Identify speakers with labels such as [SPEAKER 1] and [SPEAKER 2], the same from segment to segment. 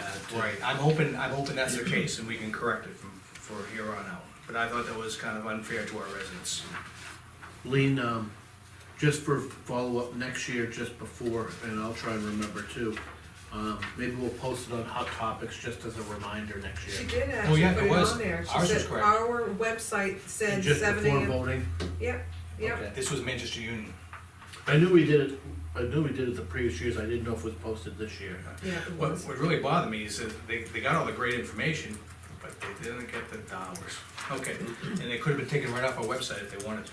[SPEAKER 1] Uh, Right, I'm hoping, I'm hoping that's the case, and we can correct it from, for here on out. But I thought that was kind of unfair to our residents.
[SPEAKER 2] Lean, um, just for follow-up next year, just before, and I'll try and remember too. Um, maybe we'll post it on Hot Topics just as a reminder next
[SPEAKER 3] She
[SPEAKER 2] year.
[SPEAKER 3] did
[SPEAKER 1] Oh,
[SPEAKER 3] actually
[SPEAKER 1] yeah,
[SPEAKER 3] put
[SPEAKER 1] it
[SPEAKER 3] it
[SPEAKER 1] was.
[SPEAKER 3] on there. She
[SPEAKER 1] Ours was
[SPEAKER 3] said,
[SPEAKER 1] correct.
[SPEAKER 3] our website
[SPEAKER 2] And
[SPEAKER 3] said
[SPEAKER 2] just
[SPEAKER 3] seven
[SPEAKER 2] before
[SPEAKER 3] AM.
[SPEAKER 2] voting?
[SPEAKER 3] Yep, yep.
[SPEAKER 2] Okay.
[SPEAKER 1] This was Manchester Union.
[SPEAKER 2] I knew we did it, I knew we did it the previous years, I didn't know if it was posted this year.
[SPEAKER 3] Yeah, it
[SPEAKER 1] What,
[SPEAKER 3] was.
[SPEAKER 1] what really bothered me is that they, they got all the great information, but they didn't get the dollars. Okay, and they could have been taken right off our website if they wanted to.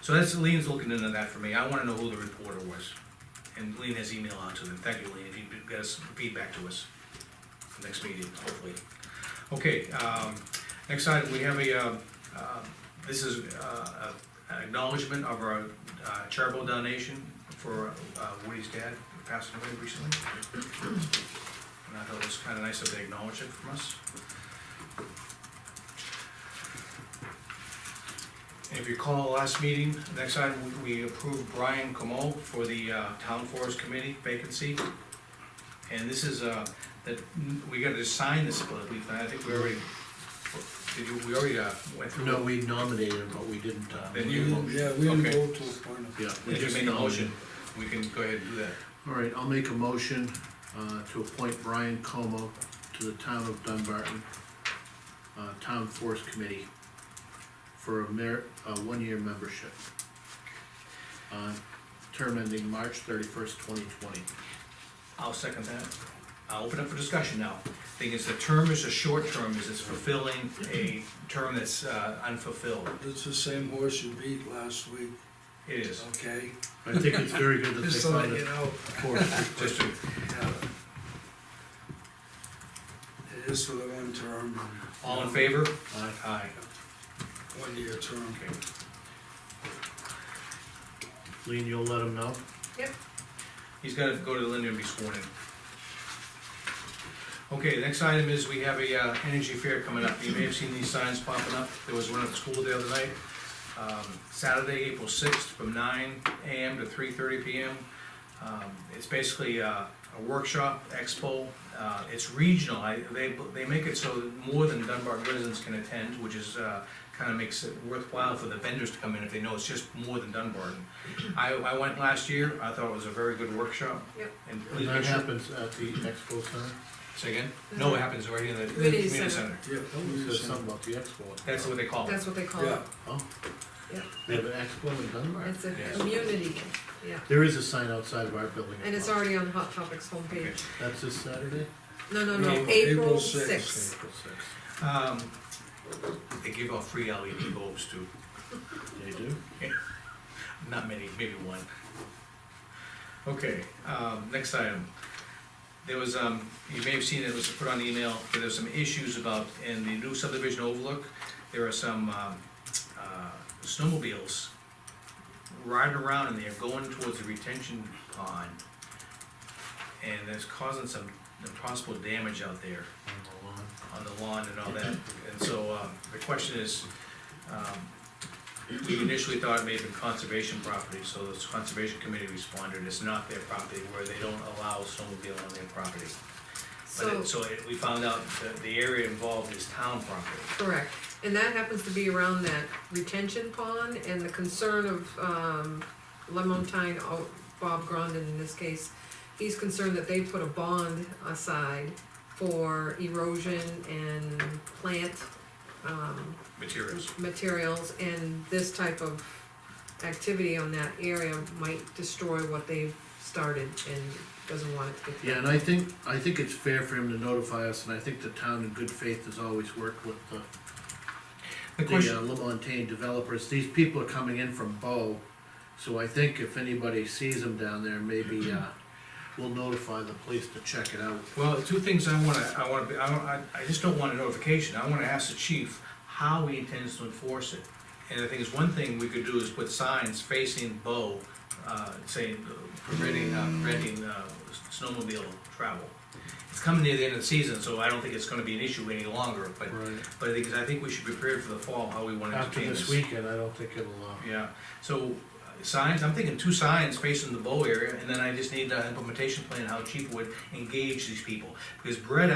[SPEAKER 1] So that's, Lean's looking into that for me, I wanna know who the reporter was. And Lean has email out to them, thank you, Lean, if you could get us feedback to us for next meeting, hopefully. Okay, um, next item, we have a, uh, uh, this is, uh, a- an acknowledgement of our uh, charitable donation for uh, Woody's dad, who passed away recently. And I thought it was kinda nice that they acknowledged it from us. And If you recall, last meeting, next item, we- we approved Brian Como for the uh, Town Forest Committee vacancy. And this is, uh, that, we gotta just sign this, but we, I think we already, did you, we already uh, went through.
[SPEAKER 2] No, we nominated him, but we didn't, uh.
[SPEAKER 1] Then
[SPEAKER 2] make a
[SPEAKER 1] you-
[SPEAKER 2] motion.
[SPEAKER 4] Yeah, we didn't
[SPEAKER 1] Okay.
[SPEAKER 4] go to appoint him.
[SPEAKER 2] Yeah. we
[SPEAKER 1] If you
[SPEAKER 2] just
[SPEAKER 1] made a
[SPEAKER 2] nominated.
[SPEAKER 1] motion, we can go ahead and do that.
[SPEAKER 2] All right, I'll make a motion, uh, to appoint Brian Como to the town of Dunbarton, uh, Town Forest Committee for a mer, a one-year membership. Uh, term ending March thirty-first, twenty twenty.
[SPEAKER 1] I'll second that. I'll open up for discussion now. Thing is, the term is a short term, is it's fulfilling a term that's uh, unfulfilled.
[SPEAKER 4] It's the same horse you beat last week,
[SPEAKER 1] It is,
[SPEAKER 4] okay?
[SPEAKER 2] I think it's very good that they
[SPEAKER 4] Just so that
[SPEAKER 2] found
[SPEAKER 4] you
[SPEAKER 2] it.
[SPEAKER 4] know,
[SPEAKER 2] Forest.
[SPEAKER 1] just to,
[SPEAKER 4] yeah. It is for the one term.
[SPEAKER 1] all in favor?
[SPEAKER 2] Aye.
[SPEAKER 1] Aye.
[SPEAKER 4] One year term.
[SPEAKER 1] Okay.
[SPEAKER 2] Lean, you'll let him know?
[SPEAKER 1] He's gotta go to Linda and be sworn in. Okay, next item is we have a uh, energy fair coming up. You may have seen these signs popping up. There was one at the school the other night. Um, Saturday, April sixth, from nine AM to three thirty PM. Um, It's basically uh, a workshop, expo. Uh, It's regional. I- They, they make it so that more than Dunbar residents can attend, which is, kind of makes it worthwhile for the vendors to come in if they know it's just more than Dunbar. I, I went last year. I thought it was a very good workshop.
[SPEAKER 3] Yep.
[SPEAKER 1] And please
[SPEAKER 2] And that
[SPEAKER 1] make sure-
[SPEAKER 2] happens at the expo center?
[SPEAKER 1] Say again? No, it happens right in the
[SPEAKER 3] Community
[SPEAKER 1] community center.
[SPEAKER 3] center.
[SPEAKER 4] Yeah.
[SPEAKER 2] You said
[SPEAKER 4] he's, uh,
[SPEAKER 2] something about the expo.
[SPEAKER 1] Oh, That's what they call it.
[SPEAKER 3] That's what they call it.
[SPEAKER 4] Yeah,
[SPEAKER 2] Oh.
[SPEAKER 3] Yeah.
[SPEAKER 2] They have an expo in Dunbar?
[SPEAKER 3] It's a
[SPEAKER 1] Yes.
[SPEAKER 3] community, yeah.
[SPEAKER 2] There is a sign outside of our building.
[SPEAKER 3] And it's already on Hot Topics
[SPEAKER 1] Okay.
[SPEAKER 3] homepage.
[SPEAKER 2] That's this Saturday?
[SPEAKER 3] No, no, no,
[SPEAKER 4] No,
[SPEAKER 3] April
[SPEAKER 4] April
[SPEAKER 3] sixth.
[SPEAKER 4] sixth.
[SPEAKER 2] April sixth.
[SPEAKER 1] Um, They give out free LED bulbs too.
[SPEAKER 2] They do?
[SPEAKER 1] Not many, maybe one. Okay, um, next item. There was, um, you may have seen it was put on email, but there's some issues about, in the new subdivision overlook, there are some, um, uh, snowmobiles riding around and they're going towards the retention pond. And that's causing some possible damage out there
[SPEAKER 2] On the lawn.
[SPEAKER 1] on the lawn and all that. And so, um, the question is, um, we initially thought it may have been conservation property, so the conservation committee responded, it's not their property, where they don't allow snowmobile on their property. But
[SPEAKER 3] So,
[SPEAKER 1] it, so it- we found out that the area involved is town property.
[SPEAKER 3] correct. And that happens to be around that retention pond and the concern of, um, Lemontine, oh, Bob Grondin in this case. He's concerned that they put a bond aside for erosion and plant, um,
[SPEAKER 1] Materials.
[SPEAKER 3] materials and this type of activity on that area might destroy what they've started and doesn't want it to get.
[SPEAKER 2] Yeah, and I think, I think it's fair for him to notify us, and I think the town in good faith has always worked with the,
[SPEAKER 1] The
[SPEAKER 2] the
[SPEAKER 1] question,
[SPEAKER 2] uh, Lamontaine developers. These people are coming in from Bow, so I think if anybody sees them down there, maybe, uh, we'll notify the police to check it out.
[SPEAKER 1] well, two things I wanna, I wanna, be- I don't, I, I just don't want a notification, I wanna ask the chief how he intends to enforce it. And the thing is, one thing we could do is put signs facing Bo, uh, saying uh, preventing, uh, preventing, uh, snowmobile travel. It's coming near the end of the season, so I don't think it's gonna be an issue any longer, but,
[SPEAKER 2] Right.
[SPEAKER 1] but the thing is, I think we should be prepared for the fall, how we wanna
[SPEAKER 2] After
[SPEAKER 1] entertain
[SPEAKER 2] this
[SPEAKER 1] this.
[SPEAKER 2] weekend, I don't think it'll, uh,
[SPEAKER 1] Yeah, so uh, signs, I'm thinking two signs facing the Bow area, and then I just need an implementation plan, how chief would engage these people. Because Brett